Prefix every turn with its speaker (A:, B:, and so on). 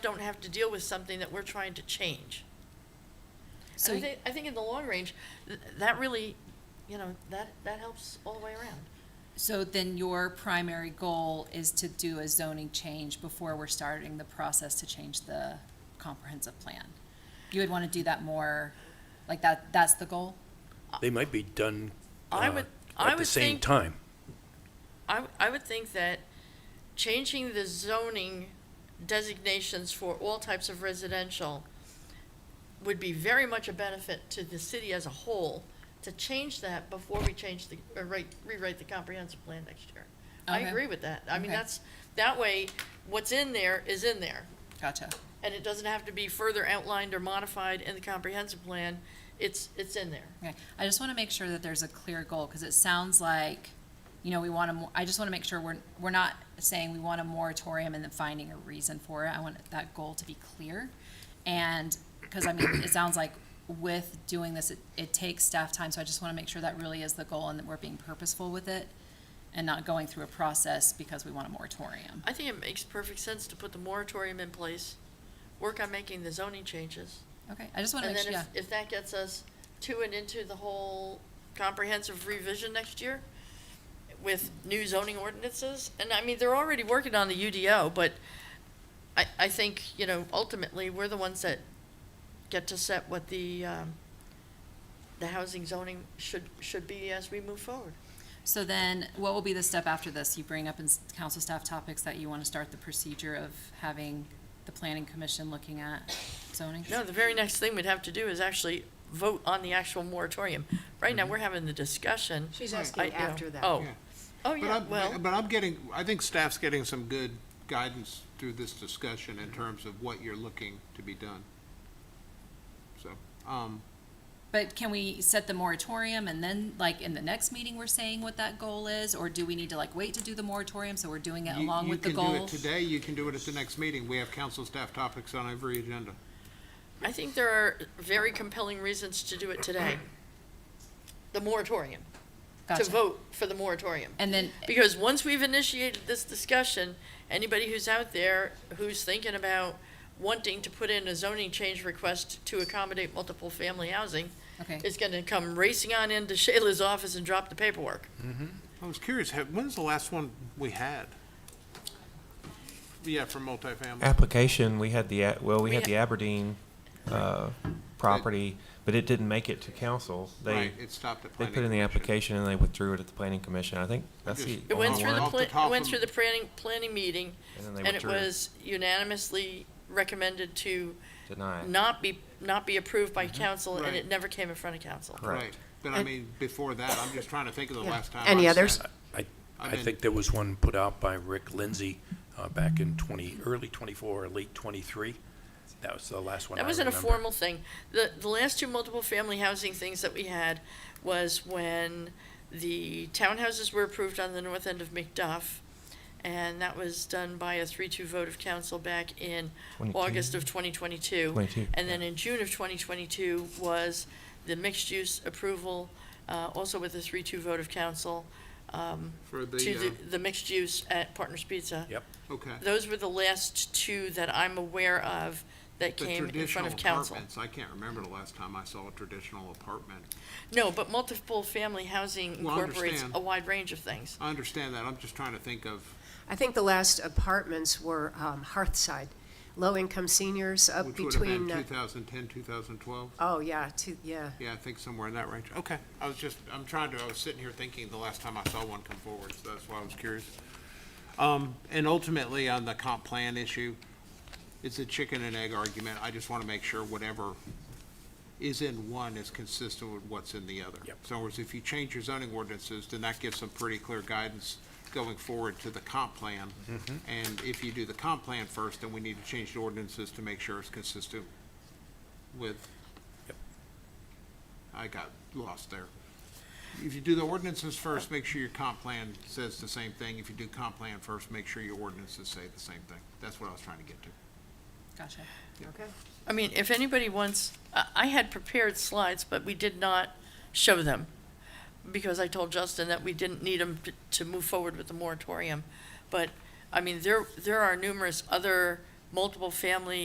A: don't have to deal with something that we're trying to change.
B: So
A: And I think, I think in the long range, th- that really, you know, that, that helps all the way around.
B: So then your primary goal is to do a zoning change before we're starting the process to change the comprehensive plan? You would want to do that more, like that, that's the goal?
C: They might be done
A: I
C: uh,
A: would- I
C: at the
A: would
C: same
A: think-
C: time.
A: I, w- I would think that changing the zoning designations for all types of residential would be very much a benefit to the city as a whole, to change that before we change the, or write, rewrite the comprehensive plan next year. I
B: Okay.
A: agree with that. I mean,
B: Okay.
A: that's, that way, what's in there is in there.
B: Gotcha.
A: And it doesn't have to be further outlined or modified in the comprehensive plan. It's, it's in there.
B: Okay, I just want to make sure that there's a clear goal, because it sounds like, you know, we want to, I just want to make sure we're, we're not saying we want a moratorium and then finding a reason for it. I want that goal to be clear. And, because I mean, it sounds like with doing this, it, it takes staff time, so I just want to make sure that really is the goal and that we're being purposeful with it and not going through a process because we want a moratorium.
A: I think it makes perfect sense to put the moratorium in place, work on making the zoning changes.
B: Okay, I just want to
A: And
B: make
A: then
B: sure, yeah,
A: if, if that gets us to and into the whole comprehensive revision next year with new zoning ordinances, and I mean, they're already working on the UDO, but I, I think, you know, ultimately, we're the ones that get to set what the, um, the housing zoning should, should be as we move forward.
B: so then what will be the step after this? You bring up in s- council staff topics that you want to start the procedure of having the planning commission looking at zoning?
A: No, the very next thing we'd have to do is actually vote on the actual moratorium. Right now, we're having the discussion.
D: She's
A: I-
D: asking
A: you know,
D: after that.
A: Oh,
E: Mm-hmm. Yeah.
A: oh,
E: But
A: yeah,
E: I'm,
A: well.
E: but I'm getting, I think staff's getting some good guidance through this discussion in terms of what you're looking to be done. So, um,
B: But can we set the moratorium and then, like, in the next meeting, we're saying what that goal is? Or do we need to, like, wait to do the moratorium, so we're doing it
E: you,
B: along
E: you
B: with the
E: can do it
B: goal?
E: today, you can do it at the next meeting. We have council staff topics on every agenda.
A: I think there are very compelling reasons to do it today. The moratorium, to
B: Gotcha.
A: vote for the moratorium.
B: And then,
A: Because once we've initiated this discussion, anybody who's out there who's thinking about wanting to put in a zoning change request to accommodate multiple family housing
B: okay,
A: is gonna come racing on into Shayla's office and drop the paperwork.
E: I was curious, have- when's the last one we had? Yeah, for multifamily.
F: application, we had the, A- well, we
A: We
F: had
A: ha-
F: the Aberdeen uh, property, but it didn't make it to council. They,
E: Right, it stopped at
F: they
E: planning.
F: put in the
E: commission.
F: application and they withdrew it at the planning commission. I think that's the
E: It
A: It went
F: only
A: through the,
F: one.
E: Off the
A: pla- it
E: top
A: went
E: of-
A: through the planning, planning meeting,
F: And then they
A: and it
F: withdrew.
A: was unanimously recommended to
F: Denied.
A: not be, not be approved by council, and it
E: Mm-hmm. Right.
A: never came in front of council.
F: Correct.
E: Right, but I mean, before that, I'm just trying to think of the last time.
D: Any
E: I
D: others?
E: sat-
C: I,
E: I'm
C: I
E: in.
C: think there was one put out by Rick Lindsay uh, back in 20, early 24 or late 23. That was the last one I
A: That wasn't a
C: remember.
A: formal thing. The, the last two multiple family housing things that we had was when the townhouses were approved on the north end of McDuff. And that was done by a three-two vote of council back in
F: 22.
A: August of twenty twenty-two.
F: 22,
A: And then in June of twenty twenty-two was the mixed-use approval, uh, also with a three-two vote of council, um, to
E: For the,
A: the, the mixed use at Partners Pizza.
C: Yep.
E: uh, okay.
A: Those were the last two that I'm aware of that
E: The
A: came in front
E: traditional
A: of council.
E: apartments, I can't remember the last time I saw a traditional apartment.
A: No, but multiple family housing
E: Well, I
A: incorporates
E: understand.
A: a wide range of things.
E: I understand that, I'm just trying to think of,
D: I think the last apartments were um, Hearthside, low-income seniors up
E: which would have been
D: between, uh,
E: 2010, 2012?
D: oh, yeah, two, yeah.
E: Yeah, I think somewhere in that range. Okay, I was just, I'm trying to, I was sitting here thinking the last time I saw one come forward, so that's why I was curious. Um, and ultimately, on the comp plan issue, it's a chicken and egg argument. I just want to make sure whatever is in one is consistent with what's in the other.
C: Yep.
E: So in other words, if you change your zoning ordinances, then that gives some pretty clear guidance going forward to the comp plan. And if you do the comp plan first, then we need to change the ordinances to make sure it's consistent with.
C: Yep.
E: I got lost there. If you do the ordinances first, make sure your comp plan says the same thing. If you do comp plan first, make sure your ordinances say the same thing. That's what I was trying to get to.
B: gotcha.
D: Okay.
A: I mean, if anybody wants, I, I had prepared slides, but we did not show them because I told Justin that we didn't need them to move forward with the moratorium. But, I mean, there, there are numerous other multiple family